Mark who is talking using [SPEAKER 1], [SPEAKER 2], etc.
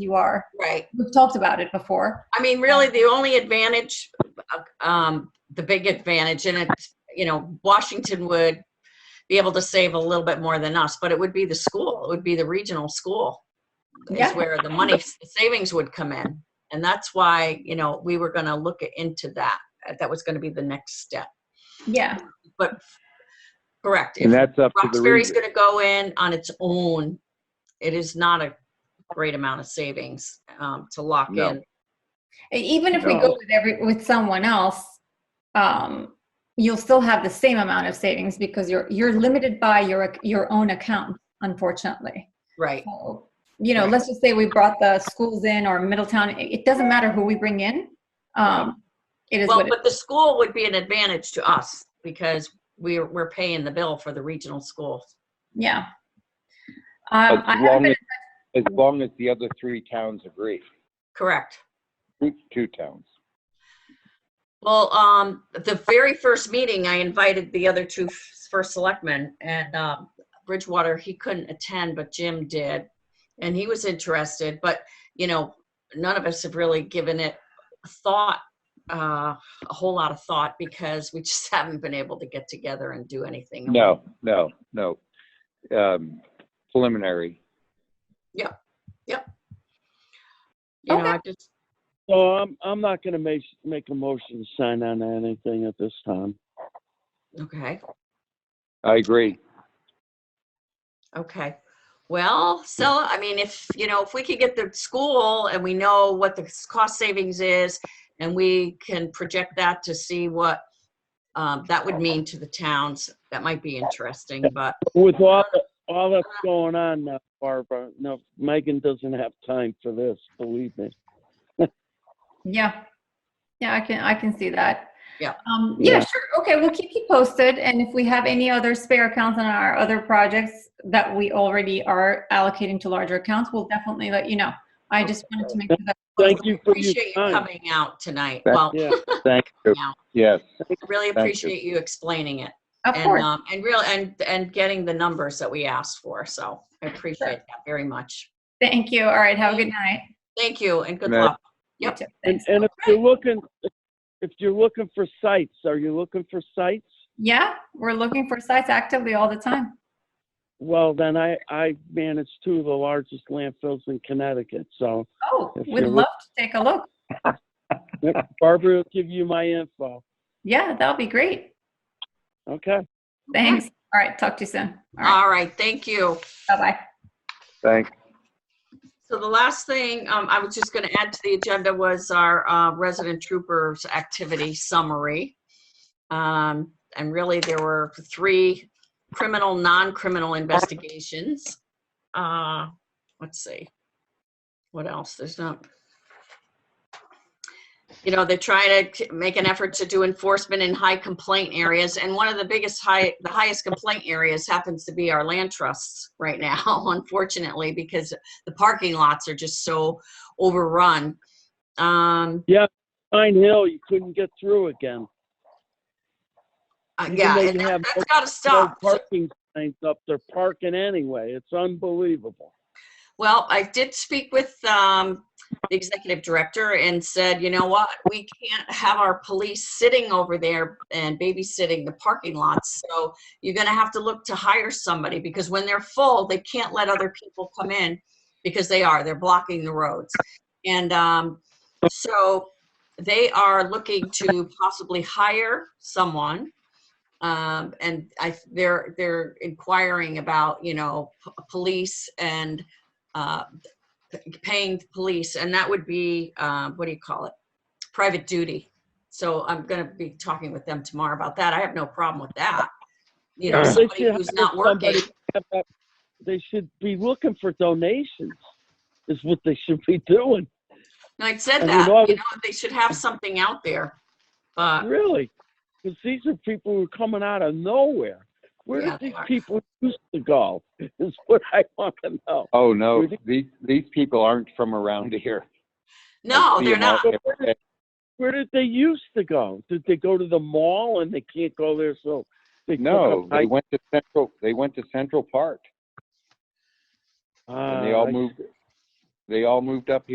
[SPEAKER 1] you are.
[SPEAKER 2] Right.
[SPEAKER 1] We've talked about it before.
[SPEAKER 2] I mean, really, the only advantage, um, the big advantage, and it's, you know, Washington would be able to save a little bit more than us, but it would be the school, it would be the regional school. Is
[SPEAKER 1] Yeah.
[SPEAKER 2] where the money, the savings would come in. And that's why, you know, we were gonna look into that. uh, That was gonna be the next step.
[SPEAKER 1] Yeah.
[SPEAKER 2] But, correct.
[SPEAKER 3] And
[SPEAKER 2] If
[SPEAKER 3] that's up to the
[SPEAKER 2] Roxbury's
[SPEAKER 3] region.
[SPEAKER 2] gonna go in on its own, it is not a great amount of savings, um, to lock
[SPEAKER 3] No.
[SPEAKER 2] in.
[SPEAKER 1] E, Even if we go
[SPEAKER 3] No.
[SPEAKER 1] with every with someone else, um, you'll still have the same amount of savings because you're you're limited by your ac- your own account, unfortunately.
[SPEAKER 2] Right,
[SPEAKER 1] So, you know, let's just say we brought the schools in or Middletown. It, it doesn't matter who we bring in. Um, it is
[SPEAKER 2] Well,
[SPEAKER 1] what it,
[SPEAKER 2] but the school would be an advantage to us because we're, we're paying the bill for the regional school.
[SPEAKER 1] yeah.
[SPEAKER 3] As
[SPEAKER 1] Um, I haven't
[SPEAKER 3] long
[SPEAKER 1] been,
[SPEAKER 3] as, as long as the other three towns agree,
[SPEAKER 2] Correct.
[SPEAKER 3] Two- two towns.
[SPEAKER 2] Well, um, the very first meeting, I invited the other two f- first selectmen and, um, Bridgewater, he couldn't attend, but Jim did. And he was interested, but, you know, none of us have really given it thought, uh, a whole lot of thought because we just haven't been able to get together and do anything.
[SPEAKER 3] No, no, no. Um, preliminary.
[SPEAKER 2] You know,
[SPEAKER 1] Okay.
[SPEAKER 2] I just,
[SPEAKER 4] So I'm, I'm not gonna make, make a motion to sign on to anything at this time.
[SPEAKER 2] okay.
[SPEAKER 3] I agree.
[SPEAKER 2] Okay. Well, so, I mean, if, you know, if we could get the school and we know what the s- cost savings is and we can project that to see what um, that would mean to the towns, that might be interesting, but
[SPEAKER 4] With all, all that's going on now, Barbara, no, Megan doesn't have time for this, believe me.
[SPEAKER 1] yeah, yeah. I can I can see that.
[SPEAKER 2] Yeah.
[SPEAKER 1] Um, yeah.
[SPEAKER 4] Yeah.
[SPEAKER 1] Sure. Okay. We'll keep you posted, and if we have any other spare accounts on our other projects that we already are allocating to larger accounts, we'll definitely let you know. I just wanted to make sure that.
[SPEAKER 4] Thank you for your
[SPEAKER 2] appreciate you
[SPEAKER 4] time.
[SPEAKER 2] coming out tonight.
[SPEAKER 3] Thank
[SPEAKER 2] Well,
[SPEAKER 4] Yeah,
[SPEAKER 3] Thank you.
[SPEAKER 2] now,
[SPEAKER 3] Yes,
[SPEAKER 2] I really
[SPEAKER 3] you.
[SPEAKER 2] appreciate you explaining it.
[SPEAKER 1] Of
[SPEAKER 2] And,
[SPEAKER 1] course.
[SPEAKER 2] um, and real, and, and getting the numbers that we asked for, so I appreciate that very much.
[SPEAKER 1] Thank you. All right. Have a good night.
[SPEAKER 2] Thank you and good
[SPEAKER 3] Good night.
[SPEAKER 2] luck.
[SPEAKER 1] You
[SPEAKER 2] Yep.
[SPEAKER 1] too.
[SPEAKER 4] and,
[SPEAKER 1] Thanks.
[SPEAKER 4] and if you're looking, if you're looking for sites, are you looking for sites?
[SPEAKER 1] Yeah, we're looking for sites actively all the time.
[SPEAKER 4] Well, then I, I manage two of the largest landfills in Connecticut, so
[SPEAKER 1] Oh,
[SPEAKER 4] If
[SPEAKER 1] we'd
[SPEAKER 4] you're
[SPEAKER 1] love to take a look.
[SPEAKER 4] Barbara will give you my info,
[SPEAKER 1] Yeah, that'll be great.
[SPEAKER 4] okay?
[SPEAKER 1] Thanks. All right, talk to you soon. All right,
[SPEAKER 2] All right, thank you.
[SPEAKER 1] bye-bye.
[SPEAKER 3] thanks.
[SPEAKER 2] So the last thing um, I was just going to add to the agenda was our uh, resident troopers activity summary. Um, And really, there were three criminal, non-criminal investigations. Uh, Let's see. What else? There's not. You know, they're trying to make an effort to do enforcement in high complaint areas. And one of the biggest high, the highest complaint areas happens to be our land trusts right now, unfortunately, because the parking lots are just so overrun. Um,
[SPEAKER 4] Pine Hill, you couldn't get through again.
[SPEAKER 2] uh,
[SPEAKER 4] Even
[SPEAKER 2] yeah,
[SPEAKER 4] though
[SPEAKER 2] and
[SPEAKER 4] you
[SPEAKER 2] that,
[SPEAKER 4] have
[SPEAKER 2] that's gotta
[SPEAKER 4] No
[SPEAKER 2] stop.
[SPEAKER 4] parking signs up, they're parking anyway, it's unbelievable.
[SPEAKER 2] Well, I did speak with, um, the executive director and said, you know what, we can't have our police sitting over there and babysitting the parking lots. So you're gonna have to look to hire somebody because when they're full, they can't let other people come in because they are, they're blocking the roads. And, um, so they are looking to possibly hire someone um, and I, they're they're inquiring about you know p- police and uh, p- paying the police, and that would be uh, what do you call it? Private duty. So I'm going to be talking with them tomorrow about that. I have no problem with that. You know,
[SPEAKER 4] They
[SPEAKER 2] somebody
[SPEAKER 4] should
[SPEAKER 2] who's
[SPEAKER 4] hire
[SPEAKER 2] not working.
[SPEAKER 4] somebody to have that- They should be looking for donations, is what they should be doing,
[SPEAKER 2] And I said
[SPEAKER 4] I mean,
[SPEAKER 2] that
[SPEAKER 4] all
[SPEAKER 2] you
[SPEAKER 4] the-
[SPEAKER 2] know they should have something out there, but
[SPEAKER 4] really. Because these are people who are coming out of nowhere. Where
[SPEAKER 2] Yeah,
[SPEAKER 4] did
[SPEAKER 2] they
[SPEAKER 4] these
[SPEAKER 2] are.
[SPEAKER 4] people used to go, is what I want to know.
[SPEAKER 3] Oh, no,
[SPEAKER 4] Really?
[SPEAKER 3] these, these people aren't from around here. I
[SPEAKER 2] no,
[SPEAKER 3] see
[SPEAKER 2] they're
[SPEAKER 3] 'em out
[SPEAKER 2] not.
[SPEAKER 3] every day.
[SPEAKER 4] Where did they used to go? Did they go to the mall and they can't go there, so they took
[SPEAKER 3] No,
[SPEAKER 4] up
[SPEAKER 3] they
[SPEAKER 4] hike-
[SPEAKER 3] went to Central, they went to Central Park and they
[SPEAKER 4] Ah,
[SPEAKER 3] all
[SPEAKER 4] I
[SPEAKER 3] moved, They all moved up